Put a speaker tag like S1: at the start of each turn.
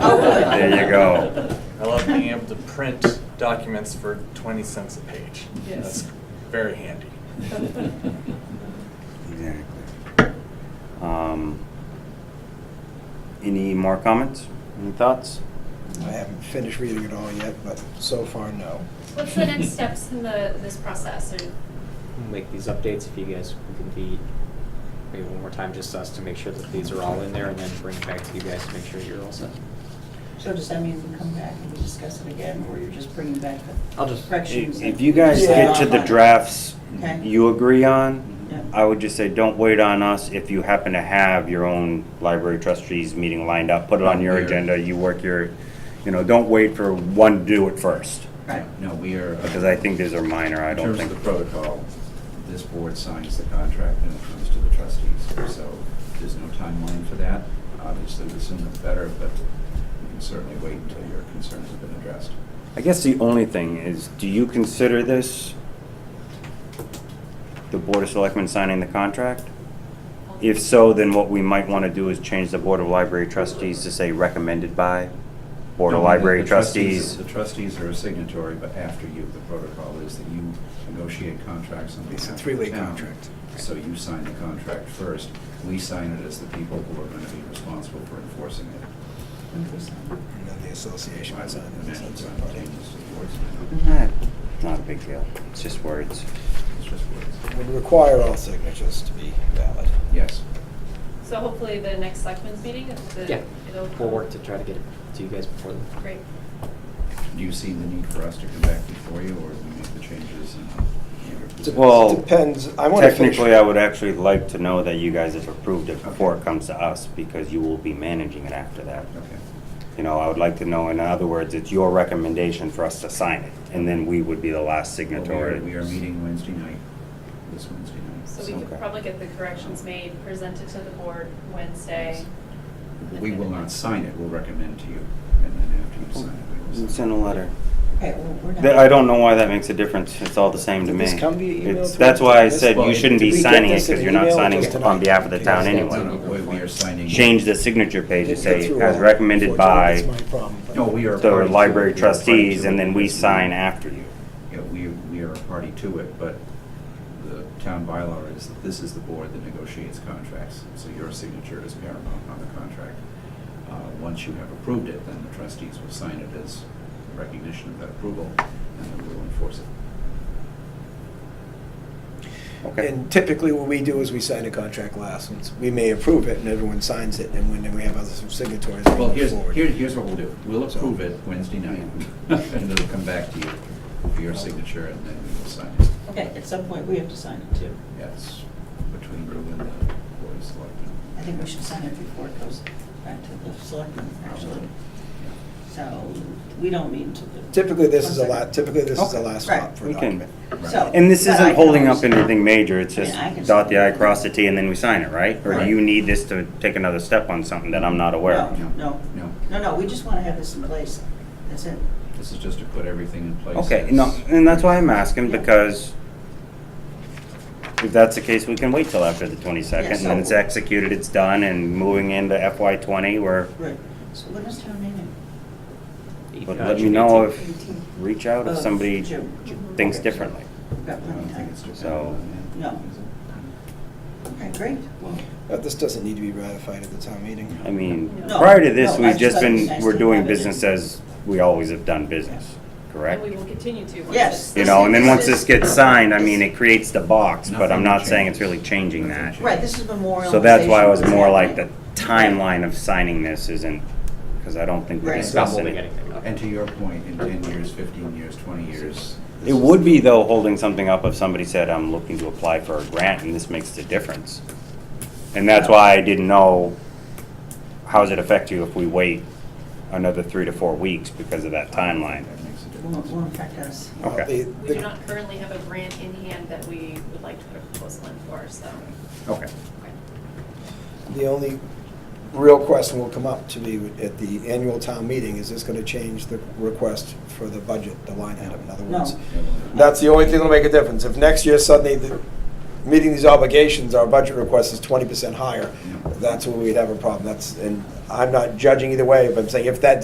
S1: There you go.
S2: I love being able to print documents for 20 cents a page.
S3: Yes.
S2: That's very handy.
S1: Exactly. Um, Any more comments? Any thoughts?
S4: I haven't finished reading it all yet, but so far, no.
S5: What's the next steps in the, this process, or,
S6: make these updates if you guys can be, maybe one more time, just us to make sure that these are all in there and then bring it back to you guys to make sure you're all set.
S3: So does that mean we come back and we discuss it again, or you're just bringing back
S6: I'll
S3: the
S6: just-
S3: corrections?
S1: If
S3: that-
S1: if you guys get to the drafts
S3: Okay.
S1: you agree on,
S3: Yeah.
S1: I would just say, don't wait on us if you happen to have your own library trustees meeting lined up. Put it on your
S7: Yeah.
S1: agenda, you work your, you know, don't wait for one to do it first.
S3: Right.
S7: No, we are. uh,
S1: Because I think these are minor, I don't
S7: In terms
S1: think.
S7: of the protocol, this board signs the contract and it comes to the trustees. So there's no timeline for that. Obviously, the sooner the better, but you can certainly wait until your concerns have been addressed.
S1: I guess the only thing is, do you consider this the Board of Selectmen signing the contract? If so, then what we might want to do is change the Board of Library Trustees to say recommended by Board of
S7: No,
S1: Library
S7: the
S1: Trustees.
S7: The trustees are a signatory, but after you, the protocol is that you negotiate contracts on behalf
S4: It's
S7: of
S4: a
S7: the
S4: three-way
S7: town.
S4: contract.
S7: So you sign the contract first. We sign it as the people who are going to be responsible for enforcing it.
S4: And then the association
S7: I
S4: was on
S7: would
S4: it.
S7: imagine it's not changes to the board's mind.
S1: Nah, Not a big deal, it's just words.
S7: It's just words.
S4: Would require all signatures to be valid.
S7: Yes.
S5: so hopefully the next selectmen's meeting, if the-
S6: Yeah,
S5: it'll.
S6: we'll work to try to get it to you guys before then.
S5: Great.
S7: Do you see the need for us to come back before you, or do we make the changes? uh, and-
S1: Well,
S4: Depends, I want to finish.
S1: Technically, I would actually like to know that you guys have approved it before it comes to us, because you will be managing it after that.
S7: Okay.
S1: You know, I would like to know, in other words, it's your recommendation for us to sign it, and then we would be the last
S7: Well, we are-
S1: signatory.
S7: We are meeting Wednesday night, this Wednesday night.
S5: So we
S1: Okay.
S5: could probably get the corrections made, presented to the board Wednesday.
S7: We will not sign it, we'll recommend to you, and then after you sign it, we will sign
S1: Send a letter.
S3: Okay, well, we're not.
S1: Th- I don't know why that makes a difference, it's all the same to
S4: Did
S1: me.
S4: this come via email
S1: It's-
S4: to
S1: That's
S4: us?
S1: why I
S4: This-
S1: said you
S7: well,
S1: shouldn't
S4: did
S1: be
S4: we get
S1: signing it,
S4: this in
S1: because
S4: an
S1: you're not
S4: email or
S1: signing
S4: just
S1: it
S4: an
S1: on behalf of the
S4: email?
S1: town
S6: Yes,
S7: it.
S6: that's
S1: anyway.
S6: an
S7: No, no, we are signing.
S1: Change the signature page to
S4: Didn't get
S1: say,
S4: through
S1: as
S4: all.
S1: recommended by
S4: Unfortunately, that's my problem, but-
S7: No, we are.
S1: the
S7: party to
S1: library
S7: it. We are party
S1: trustees,
S7: to
S1: and
S7: it.
S1: then we
S7: Yes,
S1: sign after you.
S7: Yeah, we, we are a party to it, but the town bylaw is that this is the board that negotiates contracts, so your signature is paramount on the contract. Uh, Once you have approved it, then the trustees will sign it as recognition of that approval, and then we'll enforce it.
S1: Okay.
S4: And typically, what we do is we sign a contract last, and we may approve it, and everyone signs it, and when we have other signatories, we
S7: Well,
S4: move
S7: here's,
S4: forward.
S7: here- here's what we'll do. We'll
S4: So-
S7: approve it Wednesday night, and it'll come back to you for your signature, and then we will sign it.
S3: Okay, at some point, we have to sign it too.
S7: Yes, between you and the board of selectmen.
S3: I think we should sign it before it goes back to the selectmen, actually. So we don't mean to. the-
S4: Typically, this is a
S3: One
S4: lot,
S3: second.
S4: typically, this is the
S3: Okay.
S4: last
S3: Right.
S4: stop for a
S1: We can-
S4: document.
S3: So-
S1: And this
S3: But I
S1: isn't
S3: can
S1: holding up
S3: always-
S1: anything major, it's
S3: I mean,
S1: just
S3: I can
S1: dot the i,
S3: still-
S1: cross the t, and then we sign it, right? Or do
S7: Right.
S1: you need this to take another step on something that I'm not aware
S3: No.
S1: of?
S3: No.
S7: No,
S3: No, no, we just want to have this in place. That's it.
S7: this is just to put everything in place.
S1: Okay,
S7: as-
S1: no, and that's why I'm asking, because if that's the case, we can wait till after the twenty-second,
S3: Yeah,
S1: and then it's
S3: so-
S1: executed, it's done, and moving into FY twenty, we're,
S3: Right. So when is town meeting?
S1: but
S6: Uh,
S1: let me
S6: June
S1: know if,
S6: 18th.
S1: reach out if
S3: Of
S1: somebody
S3: Uh, June.
S1: thinks
S3: Okay.
S1: differently.
S3: We've got
S7: I don't
S3: plenty of
S7: think
S3: time.
S7: it's
S1: So-
S7: dependent on that. Is
S3: No.
S7: it?
S3: Okay, great.
S7: Well,
S4: But Uh, this doesn't need to be ratified at the town meeting.
S1: I mean,
S5: No.
S1: prior to this,
S3: No, I
S1: we've
S3: just
S1: just
S3: thought it was
S1: been,
S3: nice
S1: we're
S3: to
S1: doing
S3: have it in-
S1: business as we always have done business, correct?
S5: And we will continue to. once
S3: Yes.
S5: it's-
S1: You know, and then once
S3: This
S1: this
S3: is-
S1: gets signed, I mean, it creates the box, but I'm
S7: Nothing
S1: not saying it's
S7: changes.
S1: really changing that.
S7: Nothing
S3: Right, this is memorial.
S1: So that's why I was more like the timeline of signing this isn't, because I don't think we're
S3: Right.
S6: It's not
S1: discussing
S6: holding
S1: it.
S6: anything up.
S7: And to your point, in ten years, fifteen years, twenty years. this
S1: It
S7: is-
S1: would be though, holding something up if somebody said, I'm looking to apply for a grant and this makes the difference. And that's why I didn't know, how does it affect you if we wait another three to four weeks because of that timeline?
S7: That makes a
S3: Will
S7: difference.
S3: will affect us.
S4: Well,
S1: Okay.
S4: Uh, the-
S5: We
S4: the-
S5: do not currently have a grant in hand that we would like to put a proposal in for, so.
S1: Okay.
S5: okay.
S4: The only real question will come up to me at the annual town meeting, is this going to change the request for the budget, the line item, in other words?
S3: No.
S4: That's the only thing that'll make a difference. If next year suddenly, the- meeting these obligations, our budget request is 20% higher,
S7: Yeah.
S4: that's where we'd have a problem. That's, and I'm not judging either way, but I'm saying if that